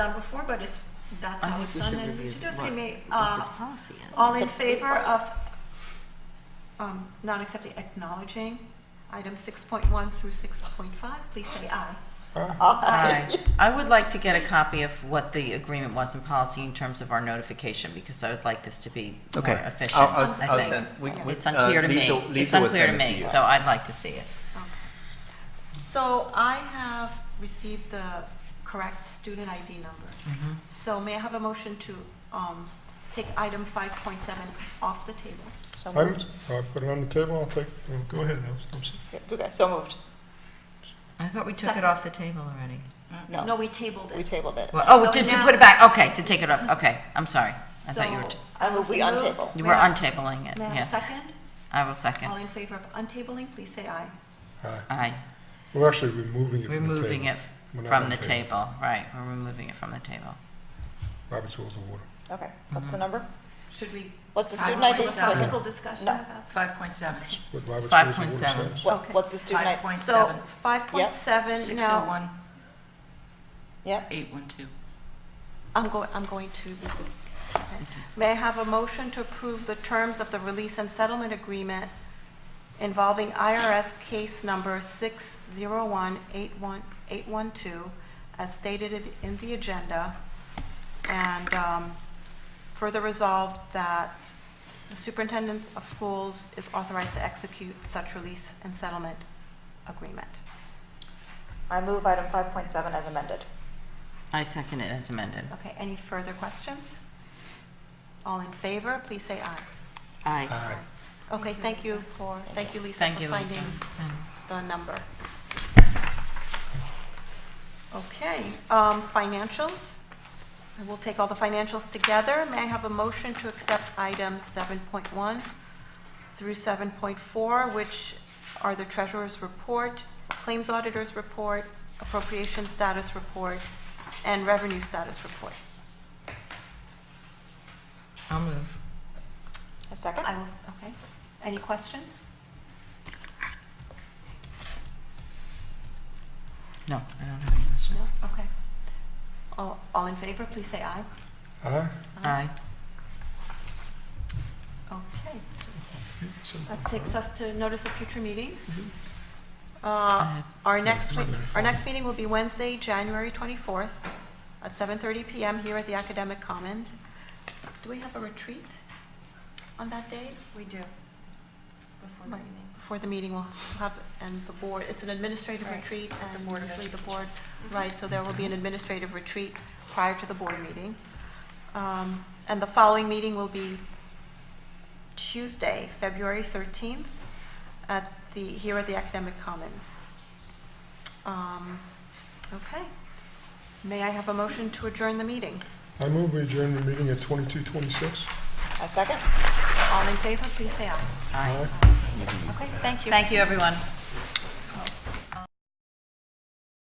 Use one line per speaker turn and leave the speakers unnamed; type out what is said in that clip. done before, but if that's
I
how
think
it's
we
done,
should
then we
review
should do it.
what-
Excuse me,
what this
uh,
policy is.
All in favor of um, not accepting, acknowledging items 6.1 through 6.5, please say aye.
Aye. I would like to get a copy of what the agreement was in policy in terms of our notification, because I would like this to be more
Okay.
efficient,
I'll- I'll
I
s- I'll
think.
send- we- we-
It's
uh,
unclear to me,
Lisa-
it's
Lisa will
unclear to
send it to
me,
you.
so I'd like to see it.
So I have received the correct student ID number. So may I have a motion to um, take item 5.7 off the table?
So
I'm,
moved.
I'll put it on the table, I'll take, well, go ahead, I'm, I'm, sorry.
It's okay, so moved.
I thought we
took it
off the table already.
No,
No,
we tabled
we
it.
tabled it.
Well, oh,
So
to, to
now-
put it back, okay, to take it off, okay, I'm sorry. I thought you were,
So
oh, t-
I move we
will move-
untable.
you
May
were
I-
untabling it,
May I have a
yes.
second?
I will second,
All in favor of untabling, please say aye.
aye.
aye.
We're actually removing it from the table.
Removing it
We're not
from
on
the table, right, we're removing it from the table.
Robert's Rules of Order.
Okay, what's the number?
Should we?
What's the student
have a
ID?
Philosophical discussion
No.
about?
Five point seven,
It's what Robert's Rules of Order
5.7.
says.
What, what's the student
five
ID?
point
So
seven,
5.7,
six oh
now,
one,
Yep,
eight one two.
I'm going, I'm going to read this. Okay. May I have a motion to approve the terms of the release and settlement agreement involving IRS case number 601-812, as stated in- in the agenda, and um, further resolved that the superintendent of schools is authorized to execute such release and settlement agreement.
I move item five point seven as amended.
I second it as amended.
Okay, any further questions? All in favor, please say aye.
Aye.
Aye.
Okay, thank you for, thank you, Lisa,
Thank
for
you, Lisa.
finding the number. Okay, um, financials. And We'll take all the financials together. May I have a motion to accept items 7.1 through 7.4, which are the treasurer's report, claims auditor's report, appropriation status report, and revenue status report?
I'll move.
A second?
I will, s- okay. Any questions?
No, I don't have any
No?
questions.
Okay. All, all in favor, please say aye.
Aye?
Aye.
Okay.
So-
That takes us to notice of future meetings. Uh, Our next, we- our next meeting will be Wednesday, January 24th, at 7:30 PM here at the Academic Commons. Do we have a retreat on that day?
We do. Before the
Mm-hmm.
Right.
meeting.
Before the meeting, we'll have, and the board, it's an administrative
Right.
retreat,
The
and
board Mm-hmm. of
usually the board, right, so there will be an administrative retreat prior to the board meeting. Um, And the following meeting will be Tuesday, February 13th, at the, here at the Academic Commons. Um, Okay. May I have a motion to adjourn the meeting?
I move we adjourn the meeting at twenty-two twenty-six.
A second?
All in favor, please say aye.
Aye.
Okay, thank you.
Thank you, everyone.